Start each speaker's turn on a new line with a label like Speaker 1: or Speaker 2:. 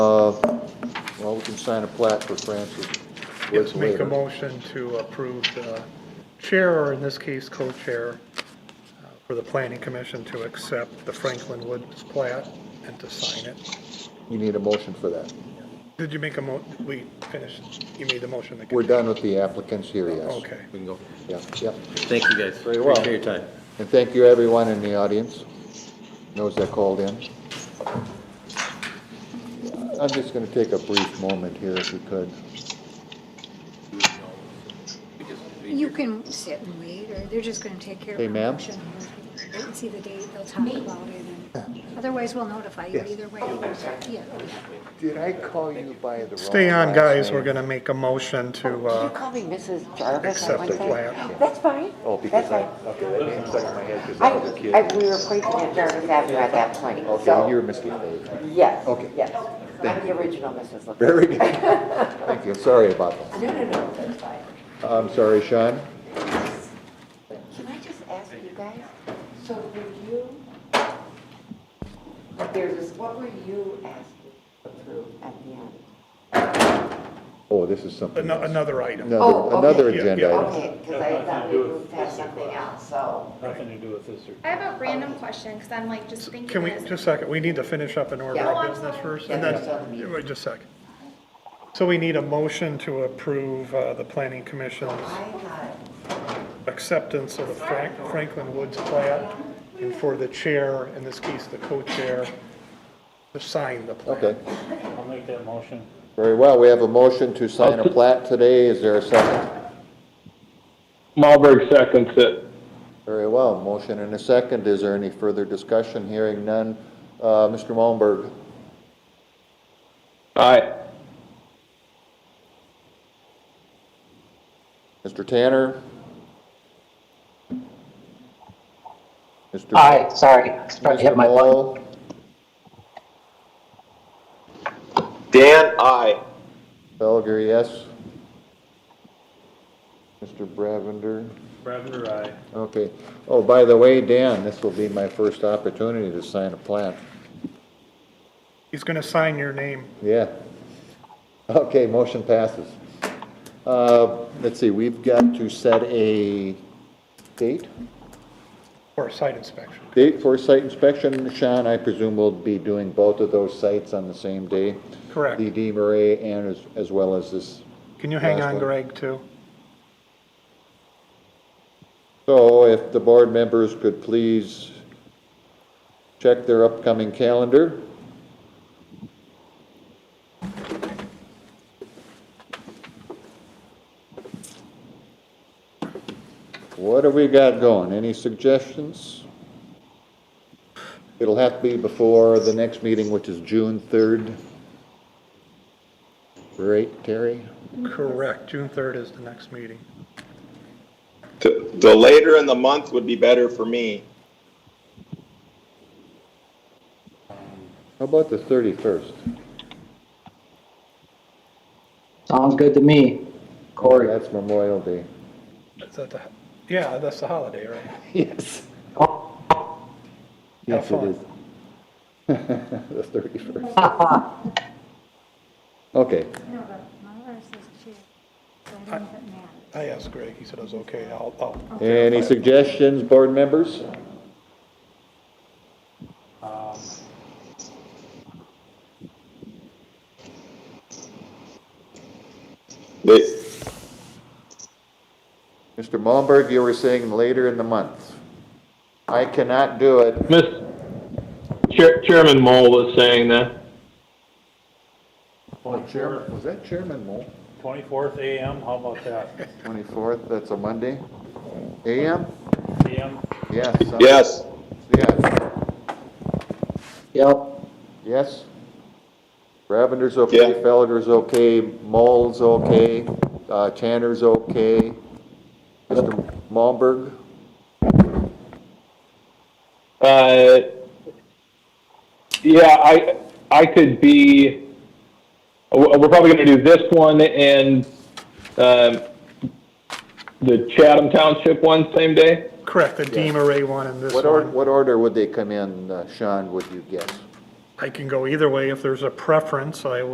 Speaker 1: Uh, sign a plat for Francis
Speaker 2: Yes, make a
Speaker 1: Linklater.
Speaker 2: motion to approve the chair, or in this case, co-chair, uh, for the planning commission to accept the Franklin Woods plat and to sign it.
Speaker 1: You need a motion for that.
Speaker 2: Did you make a mo, we finished, you made the motion to
Speaker 1: We're
Speaker 2: continue?
Speaker 1: done with the applicants here, yes.
Speaker 2: Okay.
Speaker 3: We can go.
Speaker 1: Yeah, yeah.
Speaker 3: Thank you, guys.
Speaker 1: Very well.
Speaker 3: Appreciate your time.
Speaker 1: And thank you, everyone in the audience, those that called in. I'm just gonna take a brief moment here if we could.
Speaker 4: You can sit and wait, or they're just gonna take care of
Speaker 1: Hey,
Speaker 4: the
Speaker 1: ma'am?
Speaker 4: motion. Wait and see the date, they'll talk about it, and otherwise we'll notify you
Speaker 1: Yes.
Speaker 4: either way. Yeah, yeah.
Speaker 1: Did I call you by the wrong?
Speaker 2: Stay on,
Speaker 1: last
Speaker 2: guys,
Speaker 1: name?
Speaker 2: we're gonna make a motion to,
Speaker 5: Did Oh, you
Speaker 2: uh,
Speaker 5: call me Mrs. Jarvis
Speaker 2: accept
Speaker 5: at
Speaker 2: the
Speaker 5: one time?
Speaker 2: plan.
Speaker 5: That's fine.
Speaker 1: Oh,
Speaker 5: That's
Speaker 1: because I,
Speaker 5: fine.
Speaker 1: okay, that name stuck in my head because
Speaker 5: I,
Speaker 1: I was a kid.
Speaker 5: I, we were placing at Jarvis Avenue at that point,
Speaker 1: Okay, you were
Speaker 5: so,
Speaker 1: Mr. Dave.
Speaker 5: yes,
Speaker 1: Okay.
Speaker 5: yes. I'm the original Mrs. LaFleur.
Speaker 1: Very good. Thank you, sorry about that.
Speaker 5: No, no, no, that's fine.
Speaker 1: I'm sorry, Sean.
Speaker 5: Can I just ask you guys, so were you, there's this, what were you asking to approve at the end?
Speaker 1: Oh, this is something
Speaker 2: ano-
Speaker 1: else.
Speaker 2: another item.
Speaker 1: Another,
Speaker 5: Oh, okay.
Speaker 1: another
Speaker 2: Yeah,
Speaker 1: agenda
Speaker 2: yeah.
Speaker 1: item.
Speaker 5: Okay, because I thought we moved past something else, so.
Speaker 6: I have a random question, because I'm like just thinking
Speaker 2: Can we,
Speaker 6: this.
Speaker 2: just a second, we need to finish up an order
Speaker 5: Yeah. Oh,
Speaker 2: of
Speaker 6: I'm
Speaker 2: business
Speaker 6: sorry.
Speaker 2: first, and
Speaker 5: Yeah,
Speaker 2: then,
Speaker 5: yeah.
Speaker 2: wait just a second. So we need a motion to approve, uh, the planning commission's
Speaker 5: I thought,
Speaker 2: acceptance of the Frank- Franklin Woods plat, and for the chair, in this case, the co-chair, to sign the plat.
Speaker 1: Okay,
Speaker 7: I'll make that motion.
Speaker 1: very well. We have a motion to sign a plat today. Is there a second?
Speaker 8: Malberg seconds it.
Speaker 1: Very well, motion and a second. Is there any further discussion? Hearing none. Uh, Mr. Malmberg?
Speaker 8: Aye.
Speaker 1: Mr. Tanner? Mr.
Speaker 9: Aye, sorry, I probably hit
Speaker 1: Mr.
Speaker 9: my button.
Speaker 1: Moll?
Speaker 8: Dan, aye.
Speaker 1: Belger, yes. Mr. Bravender?
Speaker 7: Bravender, aye.
Speaker 1: Okay. Oh, by the way, Dan, this will be my first opportunity to sign a plat.
Speaker 2: He's gonna sign your name.
Speaker 1: Yeah. Okay, motion passes. Uh, Let's see, we've got to set a date,
Speaker 2: Or a site inspection.
Speaker 1: date for site inspection. Sean, I presume we'll be doing both of those sites on the same day?
Speaker 2: Correct.
Speaker 1: The D. Murray and as, as well as this.
Speaker 2: Can you hang
Speaker 1: Last
Speaker 2: on,
Speaker 1: one.
Speaker 2: Greg, too?
Speaker 1: So if the board members could please check their upcoming calendar. What have we got going? Any suggestions? It'll have to be before the next meeting, which is June 3rd. Right, Terry?
Speaker 2: Correct, June 3rd is the next meeting.
Speaker 8: The later in the month would be better for me.
Speaker 1: How about the 31st?
Speaker 9: Sounds good to me. Corey,
Speaker 1: That's Memorial Day.
Speaker 2: Is that the, yeah, that's the holiday, right?
Speaker 1: Yes. Yes, it
Speaker 2: fun.
Speaker 1: is. The thirty-first. Okay,
Speaker 4: No, but my last is chair, so I don't think it matters.
Speaker 2: I asked Greg, he said it was okay, I'll, I'll.
Speaker 1: any suggestions, board members?
Speaker 7: Um,
Speaker 8: The-
Speaker 1: Mr. Malmberg, you were saying later in the month. I cannot do it.
Speaker 8: Miss, Chair- Chairman Mole was saying that.
Speaker 7: Twenty-fourth
Speaker 1: Was that Chairman Moore?
Speaker 7: 24th AM, how about that?
Speaker 1: Twenty-fourth, that's a Monday? AM?
Speaker 7: AM,
Speaker 1: Yes. uh,
Speaker 8: Yes.
Speaker 1: Yes,
Speaker 9: yep.
Speaker 1: yes. Ravender's okay,
Speaker 8: Yeah.
Speaker 1: Felder's okay, Moll's okay, uh, Tanner's okay. Mr. Malmberg?
Speaker 8: Uh, yeah, I, I could be, we're we're probably gonna do this one and, um, the Chatham Township one same day?
Speaker 2: Correct, the Deem Array one and this
Speaker 1: What order,
Speaker 2: one.
Speaker 1: what order would they come in, uh, Sean, would you guess?
Speaker 2: I can go either way, if there's a preference, I